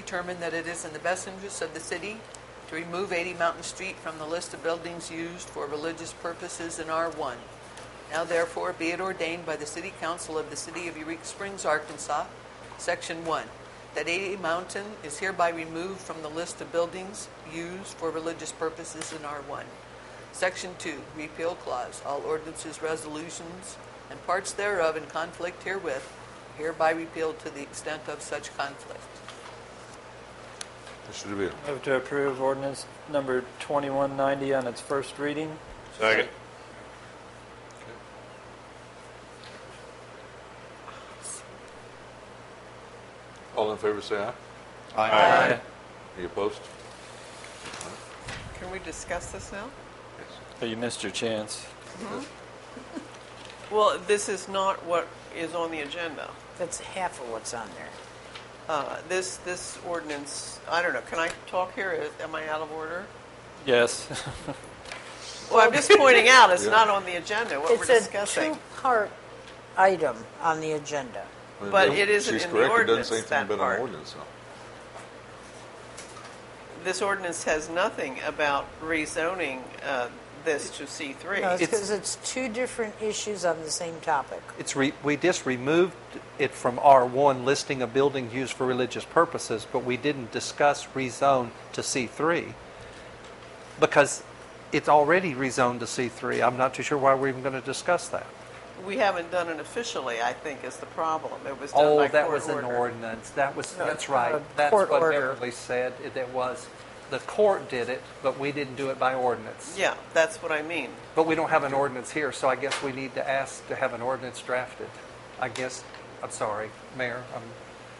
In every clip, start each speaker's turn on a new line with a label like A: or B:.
A: Determined that it is in the best interest of the city to remove 80 Mountain Street from the list of buildings used for religious purposes in R1. Now therefore be it ordained by the City Council of the City of Eureka Springs, Arkansas, Section 1, that 80 Mountain is hereby removed from the list of buildings used for religious purposes in R1. Section 2, repeal clause, all ordinances, resolutions, and parts thereof in conflict herewith hereby repealed to the extent of such conflict.
B: Mr. DeVille.
C: Move to approve ordinance number 2190 on its first reading.
B: Second. All in favor, say aye.
D: Aye.
B: Any opposed?
A: Can we discuss this now?
B: Yes.
C: Oh, You missed your chance.
E: Well, this is not what is on the agenda.
F: That's half of what's on there.
E: Uh, This, this ordinance, I don't know, can I talk here? Am I out of order?
C: Yes.
E: Well, I'm just pointing out, it's
B: Yeah.
E: not on the agenda, what we're
F: It's a
E: discussing.
F: two-part item on the agenda.
B: Well,
E: But
B: no,
E: it isn't
B: she's
E: in the
B: correct. It doesn't say
E: ordinance,
B: anything
E: that
B: about an
E: part.
B: ordinance, huh?
E: This ordinance has nothing about rezoning uh, this to
F: No,
E: C3.
F: it's
D: It's-
F: because it's two different issues on the same topic.
D: It's re, we just removed it from R1, listing of buildings used for religious purposes, but we didn't discuss rezone to C3 because it's already rezoned to C3. I'm not too sure why we're even going to discuss that.
E: We haven't done it officially, I think, is the problem. It was done
D: Oh,
E: by
D: that
E: court
D: was an
E: order.
D: ordinance. That was,
F: No,
D: that's
F: uh,
D: right. That's
F: court
D: what
F: order.
D: Beverly said. It it was, the court did it, but we didn't do it by ordinance.
E: Yeah, that's what I mean.
D: But we don't have an ordinance here, so I guess we need to ask to have an ordinance drafted. I guess, I'm sorry, Mayor, I'm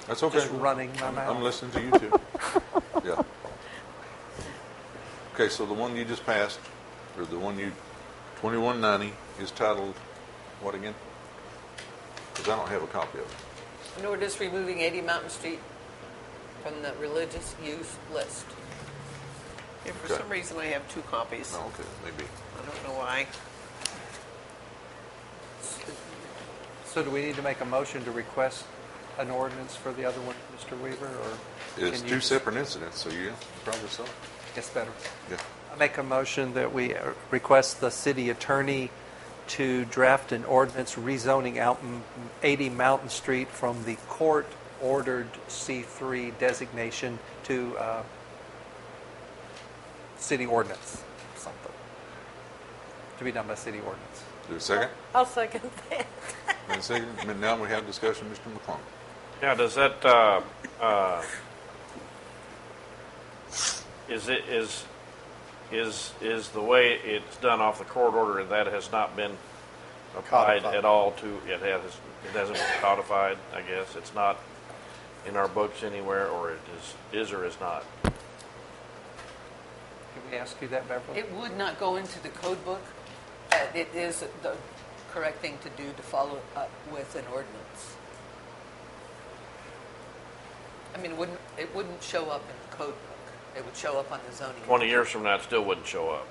B: That's okay.
D: just running my
B: I'm-
D: mouth.
B: I'm listening to you two. Yeah. Okay, so the one you just passed, or the one you, 2190, is titled, what again? Because I don't have a copy of it.
A: An ordinance removing 80 Mountain Street from the religious use list.
E: If for
B: Okay.
E: some reason I have two copies,
B: No, okay, maybe.
E: I don't know why.
D: So do we need to make a motion to request an ordinance for the other one, Mr. Weaver, or?
B: It's
D: can
B: two
D: you-
B: separate incidents, so yeah, probably so.
D: It's better.
B: Yeah.
D: I make a motion that we uh, request the city attorney to draft an ordinance rezoning out m- 80 Mountain Street from the court-ordered C3 designation to uh, city ordinance, something, to be done by city ordinance.
B: Do a second?
F: I'll second that.
B: And second, and now we have discussion, Mr. McClung.
G: Yeah, does that, uh, uh, is it, is, is, is the way it's done off the court order, that has not been applied
D: Codified.
G: at all to, it has, it hasn't been codified, I guess, it's not in our books anywhere, or it is, is or is not?
D: Can we ask you that, Beverly?
A: It would not go into the code book. Uh, It is the correct thing to do to follow up with an ordinance. I mean, it wouldn't, it wouldn't show up in the code book. It would show up on the zoning.
G: Twenty years from now, it still wouldn't show up.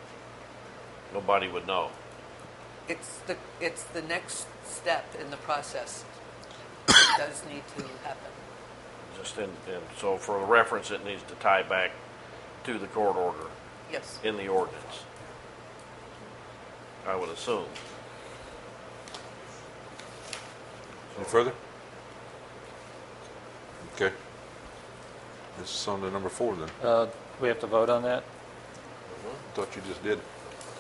G: Nobody would know.
A: It's the, it's the next step in the process. It does need to happen.
G: Just in, and so for reference, it needs to tie back to the court order.
A: Yes.
G: in the ordinance. I would assume.
B: Any further? Okay. This is on to number four then.
C: Uh, We have to vote on that?
B: Thought you just did.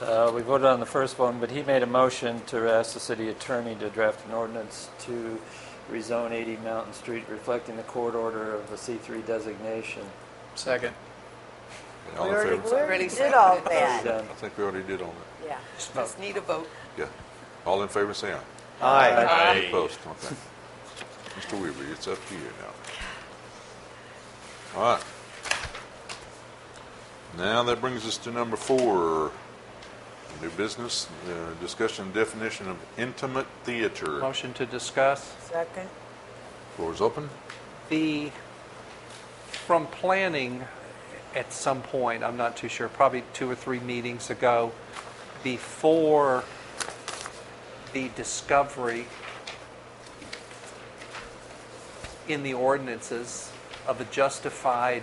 C: Uh, We voted on the first one, but he made a motion to ask the city attorney to draft an ordinance to rezone 80 Mountain Street reflecting the court order of the C3 designation.
H: Second.
B: All
F: We
B: in
F: already,
B: favor?
F: we already
A: Already
F: did all
A: seconded.
C: Already
F: that.
C: done.
B: I think we already did on that.
F: Yeah.
A: Just need a vote.
B: Yeah. All in favor, say aye.
D: Aye.
B: Any Opposed, okay. Mr. Weaver, it's up to you now. All right. Now that brings us to number four, new business, uh, discussion definition of intimate theater.
D: Motion to discuss?
F: Second.
B: Floor is open.
D: The, from planning at some point, I'm not too sure, probably two or three meetings ago, before the discovery in the ordinances of a justified